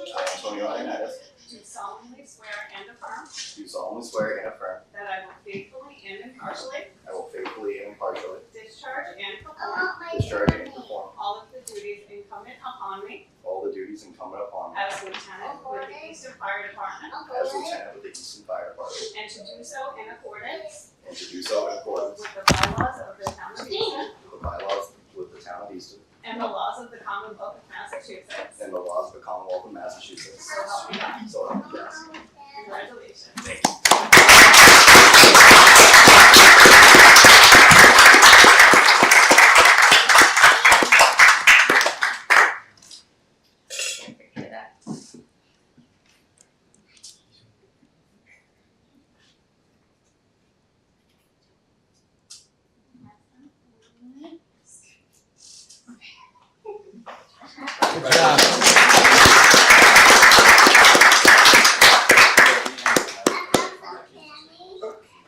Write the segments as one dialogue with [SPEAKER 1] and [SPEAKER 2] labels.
[SPEAKER 1] Antonio Ioannidis,
[SPEAKER 2] do solemnly swear and affirm
[SPEAKER 1] do solemnly swear and affirm
[SPEAKER 2] that I will faithfully and impartially
[SPEAKER 1] I will faithfully and impartially
[SPEAKER 2] discharge and perform
[SPEAKER 1] discharge and perform
[SPEAKER 2] all of the duties incumbent upon me
[SPEAKER 1] all the duties incumbent upon me
[SPEAKER 2] as lieutenant with the Eastern Fire Department,
[SPEAKER 1] as lieutenant with the Easton Fire Department,
[SPEAKER 2] and to do so in accordance
[SPEAKER 1] and to do so in accordance
[SPEAKER 2] with the bylaws of the town of Easton
[SPEAKER 1] with the bylaws with the town of Easton
[SPEAKER 2] and the laws of the Commonwealth of Massachusetts.
[SPEAKER 1] and the laws of the Commonwealth of Massachusetts.
[SPEAKER 2] So help me God.
[SPEAKER 1] So help me God.
[SPEAKER 2] Congratulations.
[SPEAKER 3] Good job.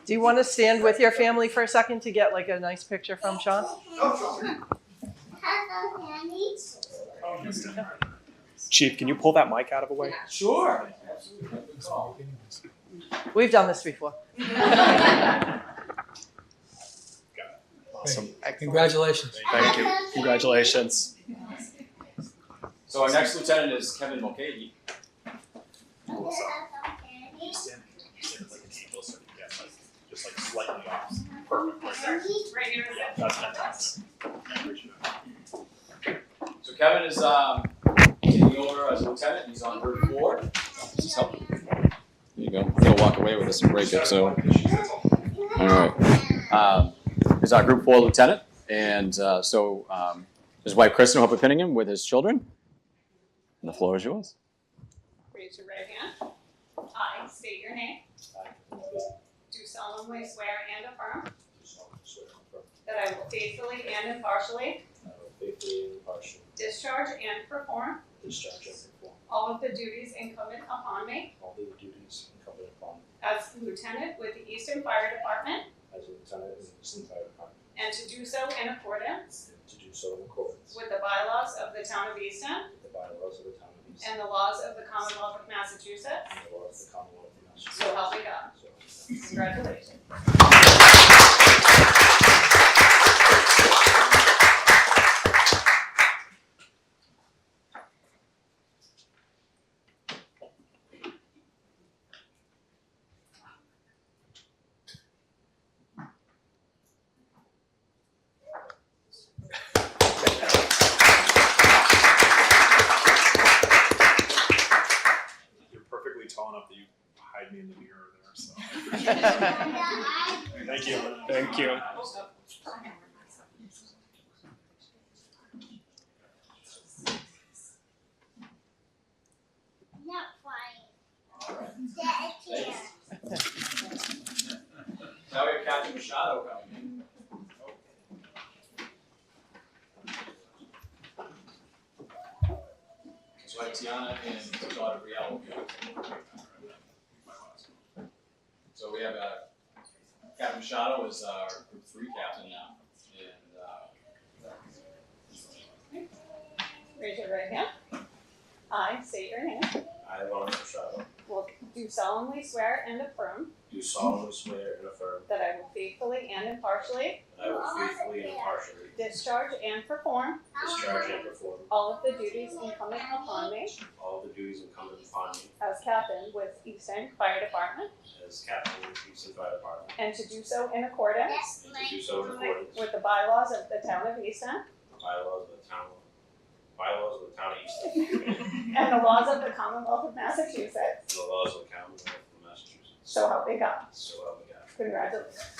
[SPEAKER 4] Do you want to stand with your family for a second to get like a nice picture from Sean?
[SPEAKER 5] Chief, can you pull that mic out of the way?
[SPEAKER 3] Sure.
[SPEAKER 4] We've done this before.
[SPEAKER 5] Awesome.
[SPEAKER 3] Congratulations.
[SPEAKER 5] Thank you. Congratulations.
[SPEAKER 6] So our next lieutenant is Kevin Mulcahy.
[SPEAKER 7] Just like slightly off.
[SPEAKER 2] Right here is it.
[SPEAKER 7] That's fantastic.
[SPEAKER 6] So Kevin is um, taking over as lieutenant. He's on Route Four.
[SPEAKER 7] Just help.
[SPEAKER 8] There you go. He'll walk away with us and break it. So, all right. Um, he's our Group 4 lieutenant. And uh, so um, his wife, Kristen, will help pinning him with his children. And the floor is yours.
[SPEAKER 2] Raise your right hand. I state your name. Do solemnly swear and affirm that I will faithfully and impartially
[SPEAKER 6] Faithfully and impartially
[SPEAKER 2] discharge and perform
[SPEAKER 6] discharge and perform
[SPEAKER 2] all of the duties incumbent upon me
[SPEAKER 6] all the duties incumbent upon me
[SPEAKER 2] as lieutenant with the Eastern Fire Department
[SPEAKER 6] as a lieutenant in the Easton Fire Department,
[SPEAKER 2] and to do so in accordance
[SPEAKER 6] and to do so in accordance
[SPEAKER 2] with the bylaws of the town of Easton
[SPEAKER 6] with the bylaws of the town of Easton
[SPEAKER 2] and the laws of the Commonwealth of Massachusetts.
[SPEAKER 6] and the laws of the Commonwealth of Massachusetts.
[SPEAKER 2] So help me God.
[SPEAKER 6] So help me God.
[SPEAKER 2] Congratulations.
[SPEAKER 7] You're perfectly tall enough that you hide me in the mirror there, so. Thank you.
[SPEAKER 5] Thank you.
[SPEAKER 7] Not flying. That is here.
[SPEAKER 6] Now we have Captain Machado coming in. So I have Tiana and daughter Brielle will be out. So we have, uh, Captain Machado is our group three captain now, and, uh,
[SPEAKER 2] Raise your right hand. I state your name.
[SPEAKER 1] I, Lawrence Machado,
[SPEAKER 2] Will do solemnly swear and affirm
[SPEAKER 1] do solemnly swear and affirm
[SPEAKER 2] that I will faithfully and impartially
[SPEAKER 1] that I will faithfully and impartially
[SPEAKER 2] discharge and perform
[SPEAKER 1] discharge and perform
[SPEAKER 2] all of the duties incumbent upon me
[SPEAKER 1] all the duties incumbent upon me
[SPEAKER 2] as captain with Eastern Fire Department
[SPEAKER 1] as captain of the Easton Fire Department,
[SPEAKER 2] and to do so in accordance
[SPEAKER 7] That's
[SPEAKER 1] and to do so in accordance with
[SPEAKER 2] with the bylaws of the town of Easton
[SPEAKER 1] the bylaws of the town, bylaws of the town of Easton, and
[SPEAKER 2] and the laws of the Commonwealth of Massachusetts.
[SPEAKER 1] the laws of the Commonwealth of Massachusetts.
[SPEAKER 2] So help me God.
[SPEAKER 1] So uh, help me God.
[SPEAKER 2] Congratulations.